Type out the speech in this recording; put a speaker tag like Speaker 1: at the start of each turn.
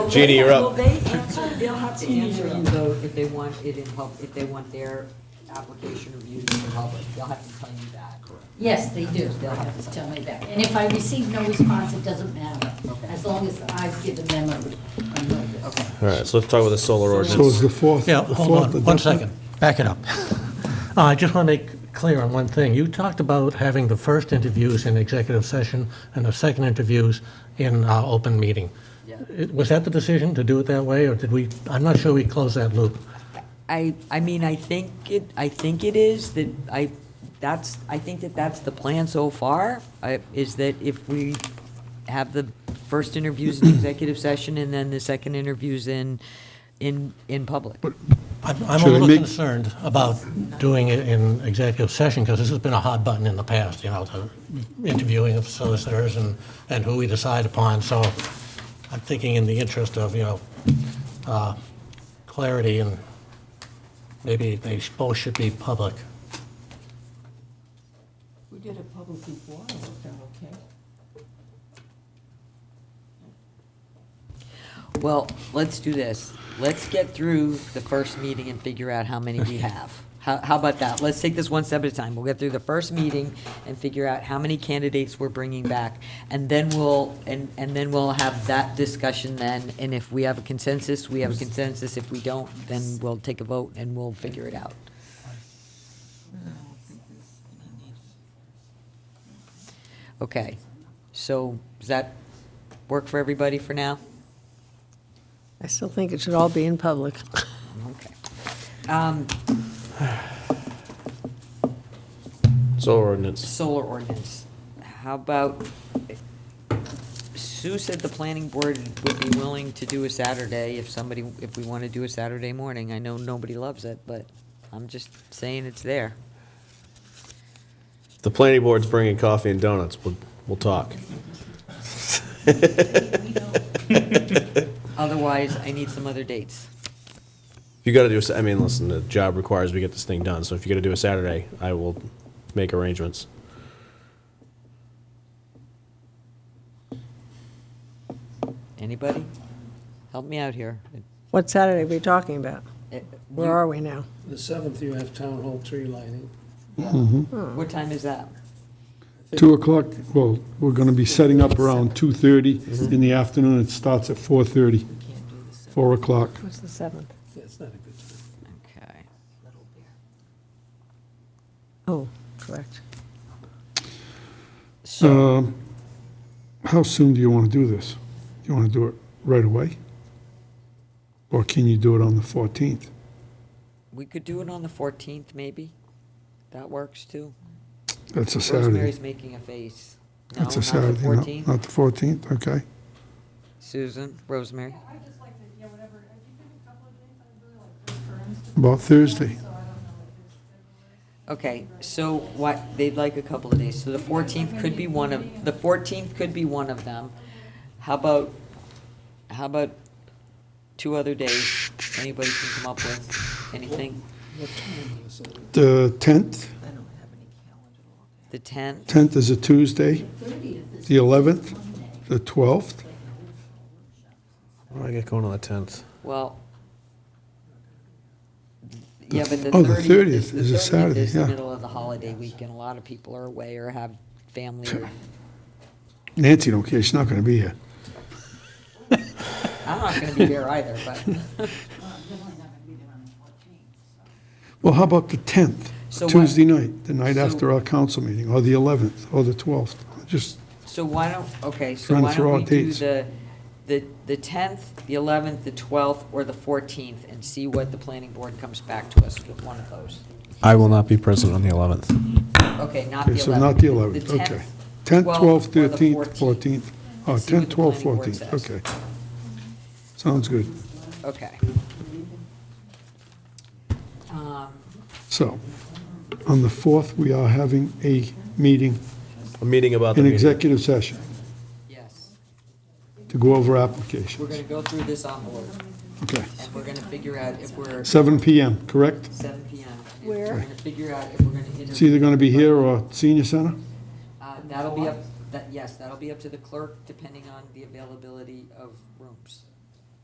Speaker 1: Jeannie, you're
Speaker 2: Well,
Speaker 1: up.
Speaker 2: they answer, they'll have to answer you though, if they want it in pub, if they want their application reviewed in public, they'll have to tell you that.
Speaker 3: Yes, they do, they'll have to tell me that. And if I receive no response, it doesn't matter, as long as I've given them a a notice.
Speaker 1: All right, so let's talk about the solar
Speaker 4: So is
Speaker 1: ordinance.
Speaker 4: the fourth?
Speaker 5: Yeah,
Speaker 4: the
Speaker 5: hold
Speaker 4: fourth
Speaker 5: on,
Speaker 4: the
Speaker 5: one
Speaker 4: definite?
Speaker 5: second. Back it up. Uh, I just want to make clear on one thing. You talked about having the first interviews in executive session and the second interviews in uh, open meeting. It- Was that the decision to do it that way, or did we, I'm not sure we closed that loop.
Speaker 2: I, I mean, I think it, I think it is that I, that's, I think that that's the plan so far, I- is that if we have the first interviews in executive session and then the second interviews in, in, in public.
Speaker 5: I'm I'm a
Speaker 4: Should I
Speaker 5: little
Speaker 4: make-
Speaker 5: concerned about doing it in executive session, because this has been a hot button in the past, you know, the interviewing of solicitors and, and who we decide upon. So I'm thinking in the interest of, you know, uh, clarity and maybe they both should be public.
Speaker 6: We did it public before, it worked out okay.
Speaker 2: Well, let's do this. Let's get through the first meeting and figure out how many we have. How, how about that? Let's take this one step at a time. We'll get through the first meeting and figure out how many candidates we're bringing back. And then we'll, and, and then we'll have that discussion then, and if we have a consensus, we have a consensus. If we don't, then we'll take a vote and we'll figure it out. Okay, so does that work for everybody for now?
Speaker 7: I still think it should all be in public.
Speaker 2: Okay. Um,
Speaker 1: Solar ordinance.
Speaker 2: solar ordinance. How about, Sue said the planning board would be willing to do a Saturday if somebody, if we want to do a Saturday morning. I know nobody loves it, but I'm just saying it's there.
Speaker 1: The planning board's bringing coffee and donuts. We'll, we'll talk.
Speaker 2: Otherwise, I need some other dates.
Speaker 1: You gotta do, a Sa- I mean, listen, the job requires we get this thing done, so if you gotta do a Saturday, I will make arrangements.
Speaker 2: Anybody? Help me out here.
Speaker 7: What Saturday are we talking about?
Speaker 2: Uh,
Speaker 7: Where are we now?
Speaker 8: The seventh, you have town hall tree lighting.
Speaker 2: What time is that?
Speaker 4: Two o'clock, well, we're going to be setting up around 2:30 in the afternoon. It starts at 4:30, 4 o'clock.
Speaker 7: What's the 7th?
Speaker 8: That's not a good time.
Speaker 2: Okay.
Speaker 7: Oh, correct.
Speaker 2: So,
Speaker 4: Um, How soon do you want to do this? Do you want to do it right away? Or can you do it on the 14th?
Speaker 2: we could do it on the fourteenth, maybe? That works too.
Speaker 4: That's a Saturday.
Speaker 2: Rosemary's making a face. No, not
Speaker 4: That's a
Speaker 2: the
Speaker 4: Saturday, no,
Speaker 2: fourteenth?
Speaker 4: not the 14th, okay.
Speaker 2: Susan, Rosemary?
Speaker 9: I just like to, yeah, whatever, I think in a couple of days, I really like returns to,
Speaker 4: About Thursday.
Speaker 9: so I don't know what it is.
Speaker 2: Okay, so what, they'd like a couple of days, so the fourteenth could be one of, the fourteenth could be one of them. How about, how about two other days, anybody can come up with anything?
Speaker 8: What time on the seventh?
Speaker 4: The 10th,
Speaker 6: I don't have any calendar.
Speaker 2: The tenth,
Speaker 4: 10th is a Tuesday, the 11th, the 12th.
Speaker 1: What do I get going on the tenth?
Speaker 2: well. Yeah, but the
Speaker 4: Oh, the
Speaker 2: thirtieth,
Speaker 4: 30th
Speaker 2: the
Speaker 4: is a
Speaker 2: thirtieth
Speaker 4: Saturday,
Speaker 2: is the
Speaker 4: yeah.
Speaker 2: middle of the holiday week, and a lot of people are away or have family. or-
Speaker 4: Nancy don't care, she's not going to be here.
Speaker 2: I'm not gonna be there either, but.
Speaker 4: Well, how about the 10th,
Speaker 2: So what-
Speaker 4: Tuesday night, the night
Speaker 2: so-
Speaker 4: after our council meeting, or the 11th, or the 12th? Just,
Speaker 2: So why don't, okay, so
Speaker 4: Trying to
Speaker 2: why
Speaker 4: throw
Speaker 2: don't
Speaker 4: out
Speaker 2: we do
Speaker 4: dates.
Speaker 2: the, the, the tenth, the eleventh, the twelfth, or the fourteenth, and see what the planning board comes back to us with one of those?
Speaker 1: I will not be present on the eleventh.
Speaker 2: Okay, not the
Speaker 4: okay,
Speaker 2: eleventh.
Speaker 4: so not the 11th, okay. 10th, 12th, 13th, 14th. Oh,
Speaker 2: See what
Speaker 4: 10th,
Speaker 2: the
Speaker 4: 12th,
Speaker 2: planning board
Speaker 4: 14th,
Speaker 2: says.
Speaker 4: okay. Sounds good.
Speaker 2: Okay. Um,
Speaker 4: So, on the 4th, we are having a meeting,
Speaker 1: A meeting about the
Speaker 4: an
Speaker 1: meeting.
Speaker 4: executive session,
Speaker 2: yes,
Speaker 4: to go over
Speaker 2: we're gonna
Speaker 4: applications.
Speaker 2: go through this envelope,
Speaker 4: Okay.
Speaker 2: and we're gonna figure out if we're
Speaker 4: 7 PM, correct?
Speaker 2: seven P M.
Speaker 7: Where?
Speaker 2: We're gonna figure out if we're gonna. inter-
Speaker 4: It's either going to be here or senior center?
Speaker 2: Uh, That'll be up, that, yes, that'll be up to the clerk, depending on the availability of rooms.